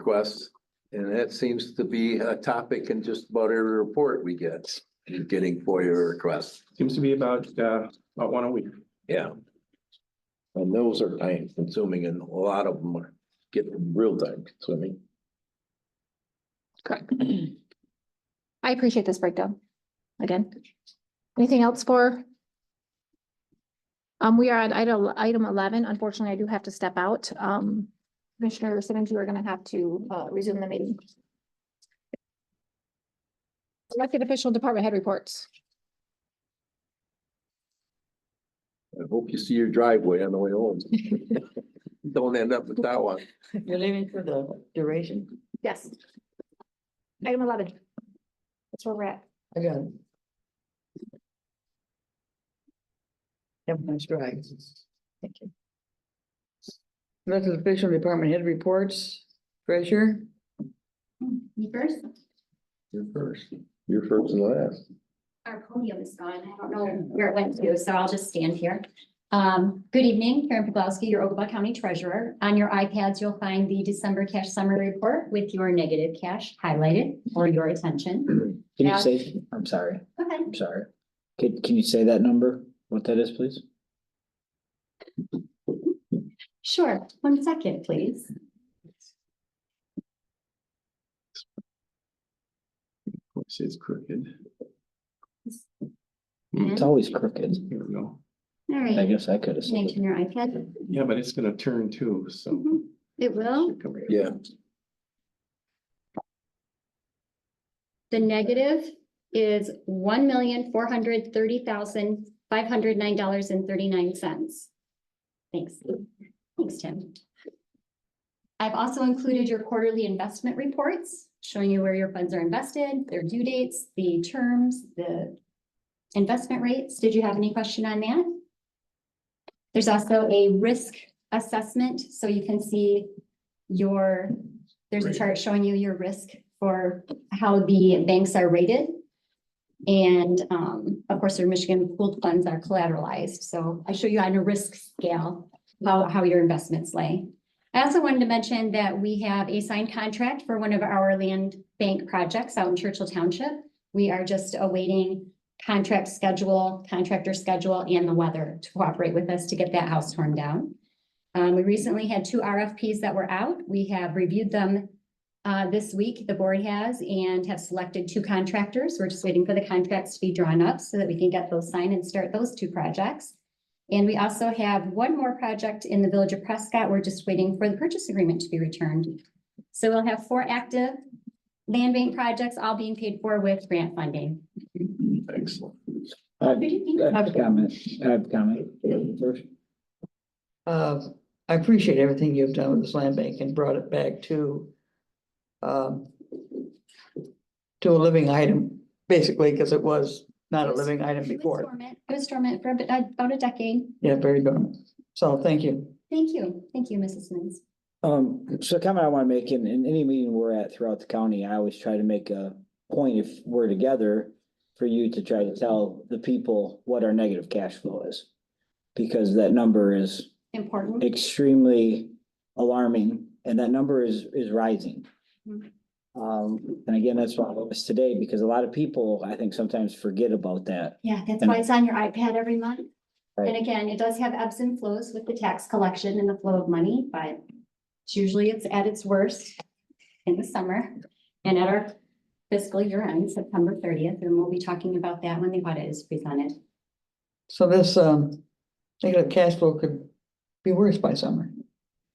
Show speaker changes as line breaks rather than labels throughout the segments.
requests. And that seems to be a topic in just about every report we get, is getting FOIA requests.
Seems to be about, uh, about one a week.
Yeah.
And those are time consuming and a lot of them are getting real time consuming.
Correct. I appreciate this breakdown. Again, anything else for? Um, we are at item, item eleven. Unfortunately, I do have to step out. Um, Commissioner Simmons, you are gonna have to, uh, resume the meeting. Elected official and department head reports.
I hope you see your driveway on the way home. Don't end up with that one.
You're leaving for the duration?
Yes. Item eleven. That's where we're at.
I got it. Everyone's dry. Thank you. Elected official department head reports, treasurer,
Me first,
You're first. You're first and last.
our podium is gone. I don't know where it went to, so I'll just stand here. Um, good evening, Karen Poglowski, your Ogama County Treasurer. On your iPads, you'll find the December cash summary report with your negative cash highlighted for your attention.
Can
Yeah.
you say, I'm sorry,
Okay.
I'm sorry. Can, can you say that number, what that is, please?
Sure, one second, please.
This is crooked.
It's always crooked.
Here we go.
All
I
right,
guess I could have
can I
said
turn
it.
your iPad?
Yeah, but it's gonna turn too, so.
Mhm. It will.
Yeah.
The negative is one million, four hundred thirty thousand, five hundred nine dollars and thirty-nine cents. Thanks. Thanks, Tim. I've also included your quarterly investment reports, showing you where your funds are invested, their due dates, the terms, the investment rates. Did you have any question on that? There's also a risk assessment, so you can see your, there's a chart showing you your risk for how the banks are rated. And um, of course, your Michigan pooled funds are collateralized, so I show you on a risk scale how, how your investments lay. I also wanted to mention that we have a signed contract for one of our land bank projects out in Churchill Township. We are just awaiting contract schedule, contractor schedule, and the weather to cooperate with us to get that house torn down. Um, we recently had two RFPs that were out. We have reviewed them uh, this week, the board has, and have selected two contractors. We're just waiting for the contracts to be drawn up so that we can get those signed and start those two projects. And we also have one more project in the Village of Prescott. We're just waiting for the purchase agreement to be returned. So we'll have four active land bank projects, all being paid for with grant funding.
Excellent.
I I have a comment, I have a comment. First,
uh, I appreciate everything you've done with this land bank and brought it back to um, to a living item, basically, because it was not a living item
It was
before.
dormant- It was dormant for a bit- uh, about a decade.
Yeah, very good. So thank you.
Thank you. Thank you, Mrs. Simmons.
Um, so a comment I want to make in, in any meeting we're at throughout the county, I always try to make a point if we're together for you to try to tell the people what our negative cash flow is. Because that number is
Important.
extremely alarming and that number is, is rising.
Mhm.
Um, and again, that's why I was today, because a lot of people, I think, sometimes forget about that.
Yeah, that's
And-
why it's on your iPad every month. And
Right.
again, it does have ebbs and flows with the tax collection and the flow of money, but it's usually it's at its worst in the summer and at our fiscal year end, September thirtieth, and we'll be talking about that when the audit is presented.
So this um negative cash flow could be worse by summer.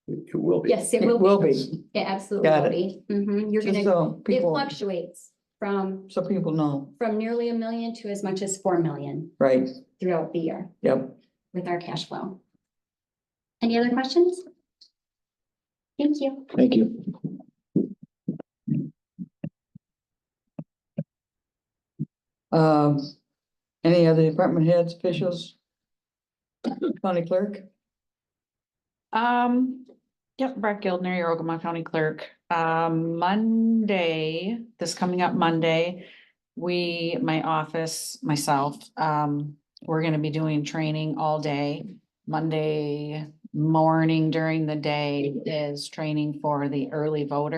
It will be.
Yes, it
It
will
will
be.
be,
It absolutely
Got
will be. Mhm, You're
just
gonna,
so
it
people,
fluctuates from,
so people know,
from nearly a million to as much as four million
right?
throughout the year
Yep.
with our cash flow. Any other questions? Thank you.
Thank you.
Um, any other department heads, officials? County clerk?
Um, yep, Brett Gildner, your Ogama County Clerk. Um, Monday, this coming up Monday, we, my office, myself, um, we're gonna be doing training all day. Monday morning during the day is training for the early voter.